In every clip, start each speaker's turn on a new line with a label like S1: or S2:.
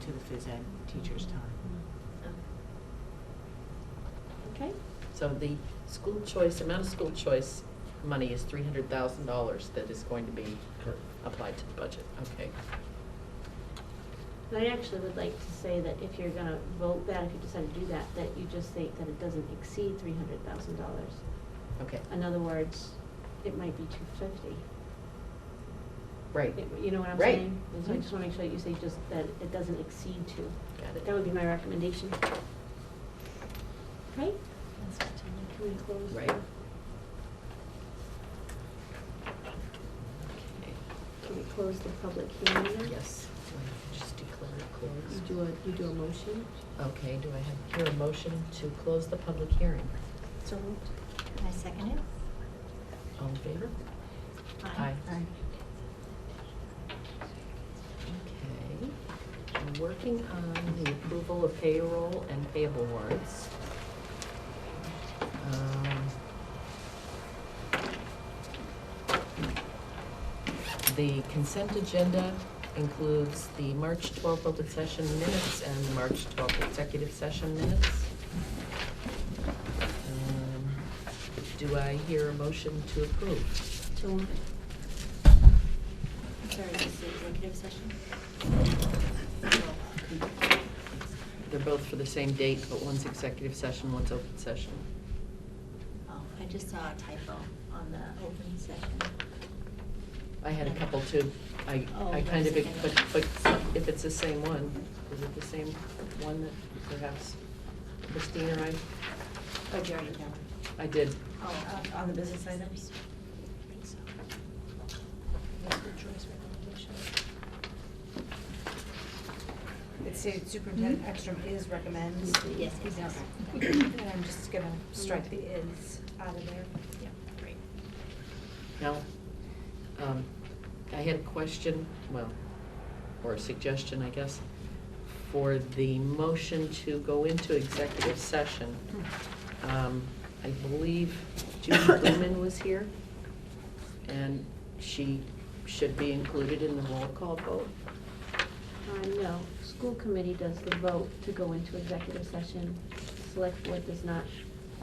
S1: to the phys ed teacher's time.
S2: Okay, so the school choice, amount of school choice money is three hundred thousand dollars that is going to be
S3: Correct.
S2: applied to the budget, okay?
S4: I actually would like to say that if you're gonna vote that, if you decide to do that, that you just think that it doesn't exceed three hundred thousand dollars.
S2: Okay,
S4: In other words, it might be two fifty.
S2: right,
S4: You know what I'm
S2: Right.
S4: saying? So I
S2: Mhm.
S4: just wanna make sure that you say just that it doesn't exceed two.
S2: got
S4: That
S2: it.
S4: would be my recommendation. Right? Can we close?
S2: Right.
S4: the-
S2: Okay.
S4: Can we close the public hearing then?
S2: Yes, Do I just declare it
S4: You
S2: closed.
S4: do a, you do a motion?
S2: Okay, do I have, hear a motion to close the public hearing?
S5: So moved. Can I second it?
S2: All in favor? Aye. Okay. I'm working on the approval of payroll and payable warrants. Um, The consent agenda includes the March 12th open session minutes and the March 12th executive session minutes. Um, Do I hear a motion to approve?
S4: So moved.
S5: Sorry, this is executive session?
S2: They're both for the same date, but one's executive session, one's open session.
S5: Oh, I just saw a typo on the open session.
S2: I had a couple too. I,
S5: Oh,
S2: I kind of,
S5: that's
S2: but,
S5: okay.
S2: but if it's the same one, is it the same one that perhaps Christine or I,
S5: Oh, Jerry, no.
S2: I did.
S5: Oh. On the business items?
S6: It stated superintendent Ekstrom is recommends. E
S5: Yes, yes,
S6: He's not
S5: yes.
S6: recommending. And I'm just gonna strike the is out of there.
S5: Yeah, great.
S2: Now, um, I had a question, well, or a suggestion, I guess, for the motion to go into executive session. Um, I believe Judy Blumen was here, and she should be included in the roll call vote.
S4: Uh, no, school committee does the vote to go into executive session. Select board does not,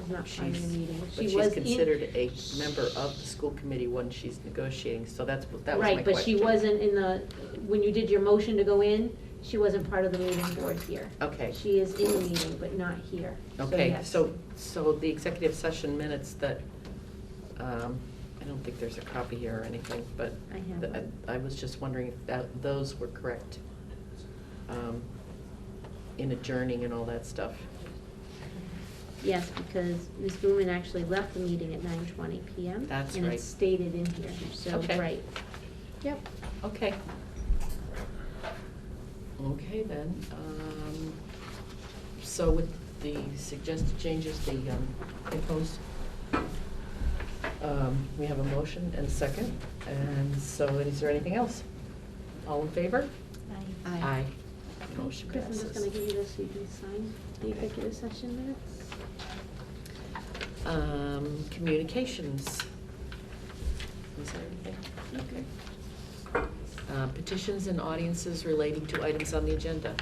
S4: is not finding a
S2: She's-
S4: meeting.
S2: But
S4: She was
S2: she's
S4: in-
S2: considered a member of the school committee when she's negotiating, so that's, that was my question.
S4: Right, but she wasn't in the, when you did your motion to go in, she wasn't part of the meeting board here.
S2: Okay.
S4: She is in the meeting, but not here.
S2: Okay,
S4: yes.
S2: so, so the executive session minutes that, um, I don't think there's a copy here or anything, but
S4: I have
S2: th-
S4: one.
S2: I was just wondering if that, those were correct, um, in adjourning and all that stuff.
S4: Yes, because Ms. Booman actually left the meeting at nine twenty PM.
S2: That's
S4: And
S2: right.
S4: it's stated in here, so,
S2: Okay.
S4: right. Yep.
S2: Okay. Okay, then, um, so with the suggested changes, the, um, proposed, um, we have a motion and a second, and so is there anything else? All in favor?
S5: Aye.
S2: Aye. Motion
S4: Chris, I'm just gonna
S2: passes.
S4: give you this, so you can sign the
S2: Okay.
S4: executive session minutes.
S2: Um, communications. Is there anything? Okay. Uh, petitions and audiences relating to items on the agenda.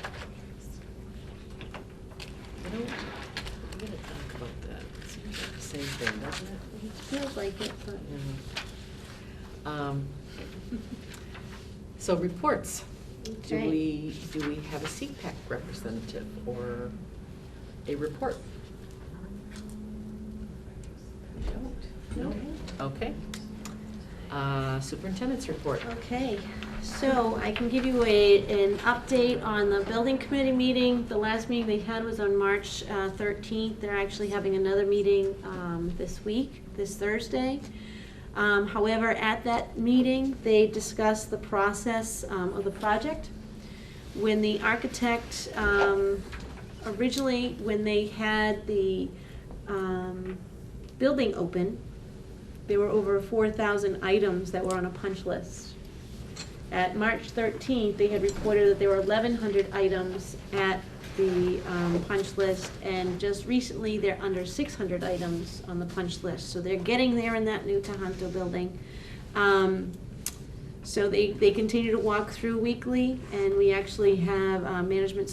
S2: I don't, I'm gonna talk about that. It seems like the same thing, doesn't it?
S4: It feels like it, but.
S2: Yeah. Um, So reports. Do
S4: Okay.
S2: we, do we have a CPAC representative or a report? We don't? No? Okay. Uh, Superintendent's report.
S4: Okay, so I can give you a, an update on the building committee meeting. The last meeting they had was on March uh, thirteenth. They're actually having another meeting um, this week, this Thursday. Um, However, at that meeting, they discussed the process um, of the project. When the architect, um, originally, when they had the um, building open, there were over four thousand items that were on a punch list. At March thirteenth, they had reported that there were eleven hundred items at the um, punch list, and just recently, they're under six hundred items on the punch list, so they're getting there in that new Tohoto building. Um, So they, they continue to walk through weekly, and we actually have uh, management